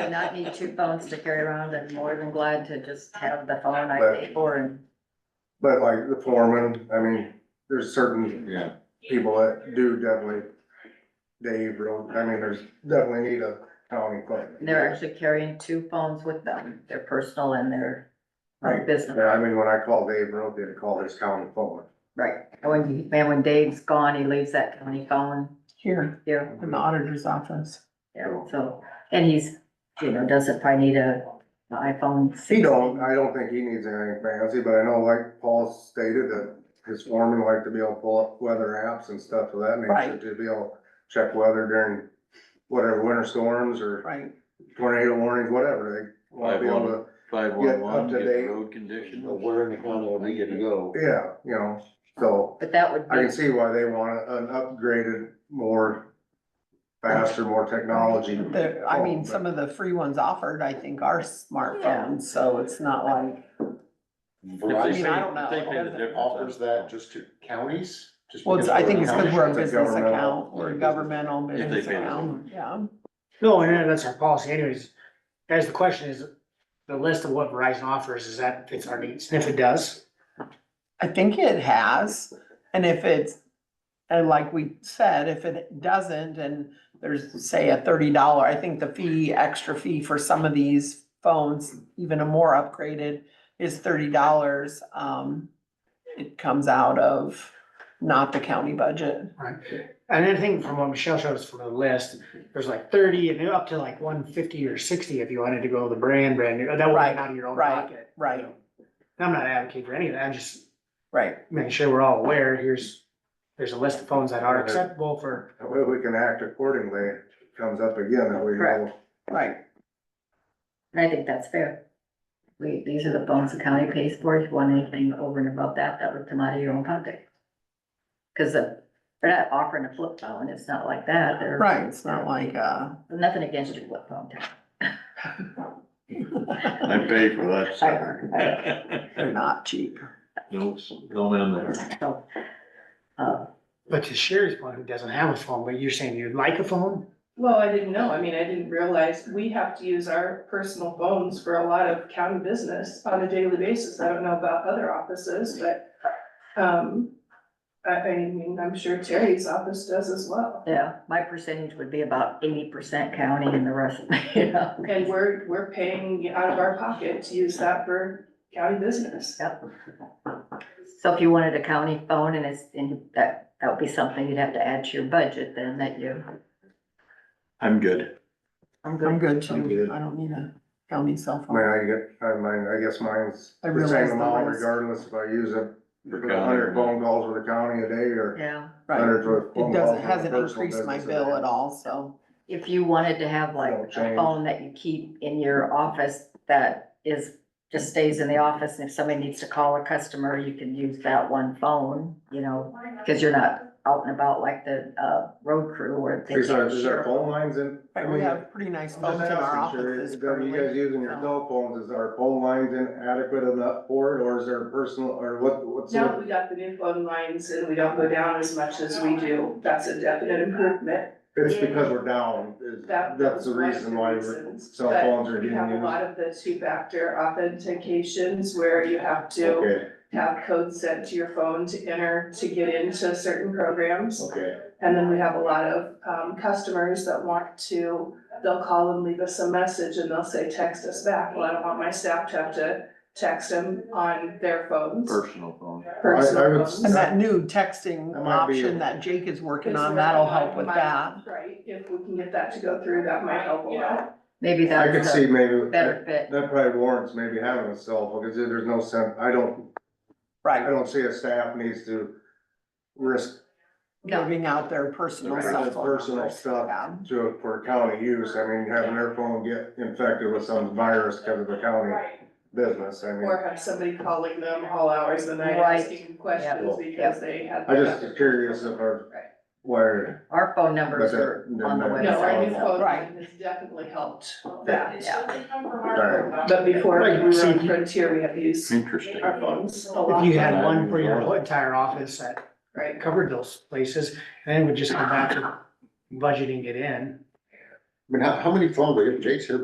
do not need two phones to carry around. I'm more than glad to just have the phone I pay for and But like the foreman, I mean, there's certain Yeah, people that do definitely, Dave, real- I mean, there's definitely need a county clerk. they're actually carrying two phones with them, their personal and their uh, Right. business. Yeah, I mean, when I call Dave Road, they call his county phone. Right, and when, he- man, when Dave's gone, he leaves that county phone here here, in the auditor's office. yeah, so, and he's, you know, doesn't probably need a a iPhone. He don't, I don't think he needs anything fancy, but I know like Paul stated that his foreman liked to be able to pull up weather apps and stuff of that nature Right. to be able to check weather during whatever winter storms or Right. tornado warnings, whatever. They wanna be able to, five Get one up one, to get date. the road condition. Where in the county are we gonna go? yeah, you know, so But that would I can be, see why they want an upgraded, more faster, more technology. There, I Oh, mean, some of the free ones offered, I think, are smartphones, so it's not like, If they mean, pay- Verizon I don't know. if They pay the It doesn't- difference. offers that just to counties? just well, it's- because I think we're a it's county? because we're a It's a business governmental- account, we're a governmental If they business pay the account, yeah. No, and that's our policy anyways. Guys, the question is, the list of what Verizon offers, is that fits our needs? And if it does, I think it has, and if it's, and like we said, if it doesn't, and there's, say, a thirty dollar, I think the fee, extra fee for some of these phones, even a more upgraded, is thirty dollars, um, it comes out of not the county budget. right? And I think from what Michelle showed us from the list, there's like thirty and up to like one fifty or sixty if you wanted to go the brand, brand new, that would Right, be out of your own right, pocket. right. And I'm not advocating for any of that, I'm just Right. making sure we're all aware, here's, there's a list of phones that are acceptable for, That way we can act accordingly, If it comes up again, that we know. Correct. Right, and I think that's fair. We, these are the phones the county pays for, if you want anything over and above that, that would come out of your own pocket. Cause the, they're not offering a flip phone, it's not like that, they're. right, it's not like, uh, Nothing against your flip phone, I pay for that they're sucker. not cheap. Nope, no in there. so. Uh, but to Sherry's point, who doesn't have a phone, but you're saying you'd like a phone? Well, I didn't know, I mean, I didn't realize, we have to use our personal phones for a lot of county business on a daily basis, I don't know about other offices, but, um, I, I mean, I'm sure Terry's office does as well, yeah, my percentage would be about eighty percent county and the rest, you know. and we're, we're paying out of our pocket to use that for county business. Yep. So if you wanted a county phone and it's, and that, that would be something you'd have to add to your budget then that you. I'm good. I'm I'm good I'm good. too, I don't need a county cell I mean, phone. I get, I mean, I guess mine's I the realize same the amount list. regardless if I use it. For for county. a hundred phone calls with the county a day or Yeah, Right. hundred for a phone It calls. doesn't, hasn't increased my bill at all, so, if you wanted to have like That'll a change. phone that you keep in your office that is, just stays in the office and if somebody needs to call a customer, you can use that one phone, you know, because you're not out and about like the, uh, road crew or. they Is our, can't is share. our phone lines in? I Right, we mean, have pretty nice I'm phones just in our asking, Sherry, offices is- are you guys currently. using your so. cell phones? Is our phone lines inadequate enough for it or is there personal or what, what's? the- Now that we got the new phone lines and we don't go down as much as we do, that's a definite improvement. It's because we're down. is- That- That's the one of reason why we're- reasons, cell but phones are We getting have a used. lot of the two-factor authentications where you have to Okay, have codes sent to your phone to enter to get into certain programs. okay. And then we have a lot of, um, customers that want to, they'll call and leave us a message and they'll say, text us back. Well, I don't want my staff to have to text them on their phones, Personal phone. I- I personal would- phones. And that new texting That might be- option that Jake is working on, Because that'll we're- help with that. Right, if we can get that to go through, that might help a lot. Maybe I could that's see a maybe, better that fit. that probably warrants maybe having a cell phone because there's no sense, I don't, I Right, don't see a staff needs to risk No. giving out their personal Right. cell That's phone personal numbers, yeah. stuff to, for county use, I mean, having their phone get infected with some virus because of the county business, I mean. Or have somebody calling them all hours of the night Right. asking questions Yep. because they had. I just was curious if our wired, Our phone numbers But that- are on the that- No, our new website. phone Right. line has definitely helped that. Alright. But before we Right, were so on you- Frontier, we had to use Interesting. our phones a If you lot, had one for your whole entire office that right? covered those places, and it would just come back to budgeting it in. I mean, how, how many phones, Jake's here